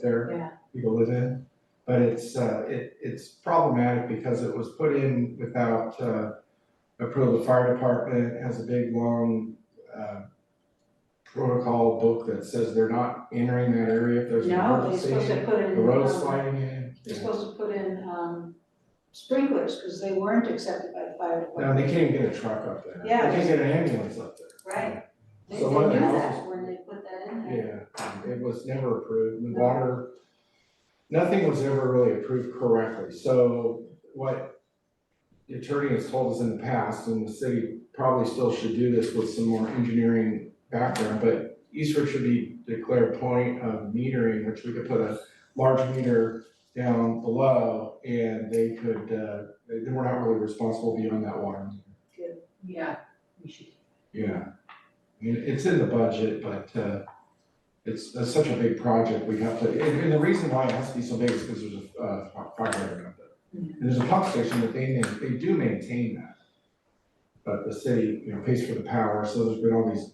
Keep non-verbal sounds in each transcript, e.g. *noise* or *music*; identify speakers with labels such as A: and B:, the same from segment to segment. A: there,
B: yeah,
A: people live in. But it's, uh, it, it's problematic because it was put in without, uh, approval of the fire department, It has a big, long, uh, protocol book that says they're not entering that area if there's an
B: no, they're
A: emergency.
B: supposed to put in.
A: The road's
B: um,
A: sliding in.
B: They're supposed to put in, um, sprinklers, because they weren't accepted by the fire
A: Now, they
B: department.
A: can't get a truck up there.
B: Yeah.
A: They can't get an ambulance up there.
B: Right. They, they
A: So one of
B: knew
A: the
B: that
A: houses-
B: when they put that in there.
A: Yeah, um, it was never approved, the
B: No.
A: water, nothing was ever really approved correctly, so what the attorney has told us in the past, and the city probably still should do this with some more engineering background, but Eastwood should be declared point of metering, which we could put a large meter down below, and they could, uh, they, they were not really responsible beyond that water meter.
C: Yeah, we should.
A: Yeah, I mean, it's in the budget, but uh, it's, that's such a big project, we have to, and, and the reason why it has to be so big is because there's a, uh, fi- fire hydrant up there. And there's a pump station that they, ma- they do maintain that. But the city, you know, pays for the power, so there's been all these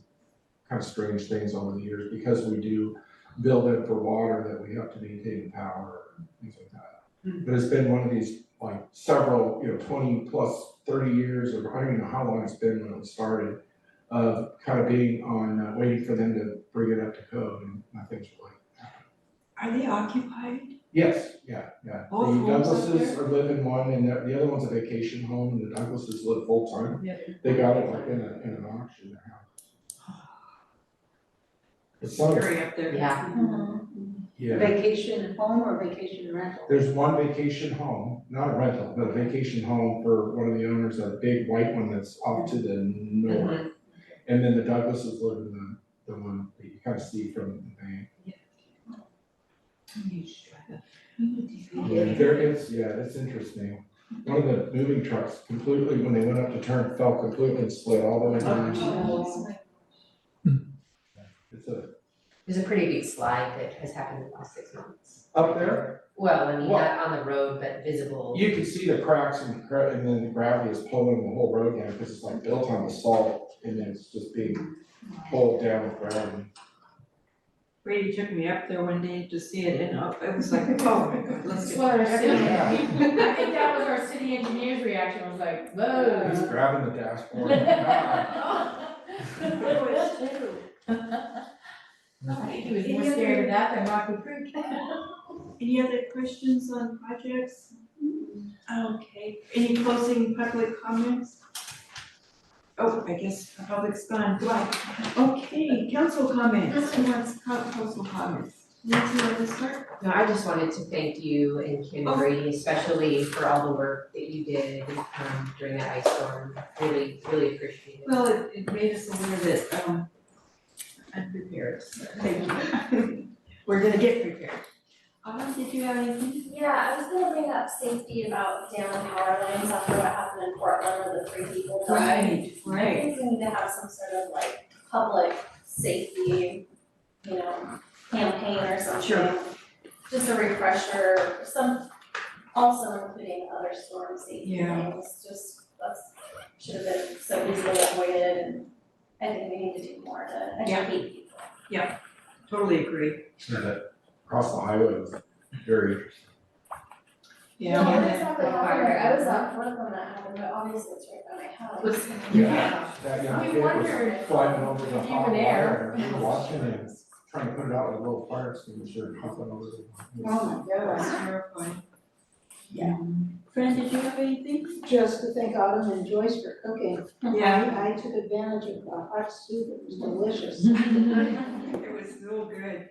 A: kind of strange things over the years, because we do build it for water, that we have to maintain the power, and things like that. But it's been one of these, like, several, you know, twenty plus, thirty years, or I don't even know how long it's been when it started of kind of being on, uh, waiting for them to bring it up to code and nothing's really.
C: Are they occupied?
A: Yes, yeah, yeah.
C: Both homes up
A: The Douglases are living one and the, the other one's a vacation home and the Douglases live full time.
C: Yeah.
A: They got it like in a, in an auction, their house. It's some,
C: Very up there.
D: Yeah.
B: Mm-hmm.
A: yeah,
B: Vacation home or vacation rental?
A: there's one vacation home, not a rental, but a vacation home for one of the owners, a big white one that's off to the
D: Mm-hmm. Um,
A: north. And then the Douglases live in the, the one that you kind of see from the bank.
C: You should try that. We need to see
A: Yeah,
C: it.
A: There is, yeah, it's interesting. One of the moving trucks completely, when they went up to turn, fell completely and split all the way down.
B: Oh.
A: It's a,
D: There's a pretty big slide that has happened in the last six months.
A: up there,
D: Well, I mean,
A: What?
D: not on the road, but visible.
A: you can see the cracks and cra- and then the gravity is pulling the whole road down because it's like built on the salt and then it's just being pulled down with gravity.
C: Brady took me up there one day to see it and up- it was like, oh my god, let's
E: That's
C: get.
E: what our city,
A: Yeah.
E: I think that was our city engineer's reaction, was like,
A: He's
E: whoa.
A: grabbing the dashboard.
E: *laughs* I think he was more scared of that than Rocky Creek.
F: Any other questions on projects? Okay, any closing public comments? Oh, I guess the public's gone, right, okay, council comments, who wants co- council comments? Nancy, you wanna start?
D: No, I just wanted to thank you and Kim
A: Oh.
D: Brady especially for all the work that you did um during that ice storm. Really, really appreciate it.
C: Well, it, it made us a little bit, um, unprepared, so *laughs* thank you.
E: We're gonna get prepared.
F: Autumn, did you have anything?
G: Yeah, I was gonna bring up safety about down power lines after what happened in Portland with the three people dying. I
C: Right.
G: think we need to have some sort of like public safety, you know, campaign or something.
C: Sure.
G: Just a refresher, some, also including other storm safety
C: Yeah.
G: things, just, that's, should have been so easily avoided and I think we need to do more to
C: Yeah.
G: educate people.
C: Totally agree.
A: Yeah, that Across the highway was very interesting.
C: Yeah.
G: No, that's not what happened, I was at work when that happened, but obviously it's right by my house.
A: Yeah. That young
E: *laughs* We
A: kid was
E: wondered
A: flying over the
E: if you
A: hot
E: were
A: wire,
E: there.
A: we were watching him, trying to put it out with a little fire extinguisher, and hopping over the.
B: Oh my
C: That's
B: God.
F: *laughs*
C: terrifying.
F: Fran, did you have anything?
B: Just to thank Autumn and Joyce for cooking.
C: Yeah.
B: I I took advantage of a hot soup, it was delicious.
C: It was so good.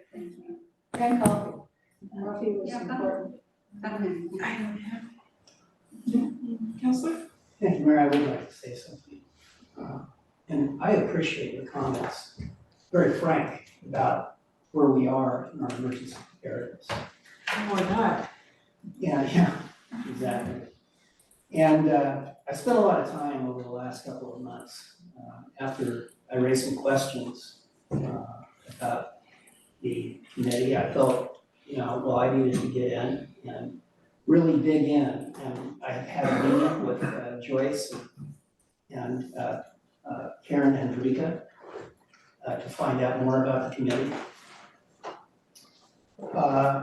B: And coffee. Mm-hmm. Coffee was
F: Yeah, coffee.
B: important.
F: I don't have. Counselor?
H: Thank you, Mayor, I would like to say something. Uh, And I appreciate your comments, very frank about where we are in our emergency preparedness.
C: Oh my god.
H: Yeah, yeah, exactly. And uh, I spent a lot of time over the last couple of months, uh, after I raised some questions uh, about the committee, I felt, you know, well, I needed to get in and really dig in. And I had a meeting with uh, Joyce and uh, uh, Karen and Rika uh, to find out more about the committee. Uh,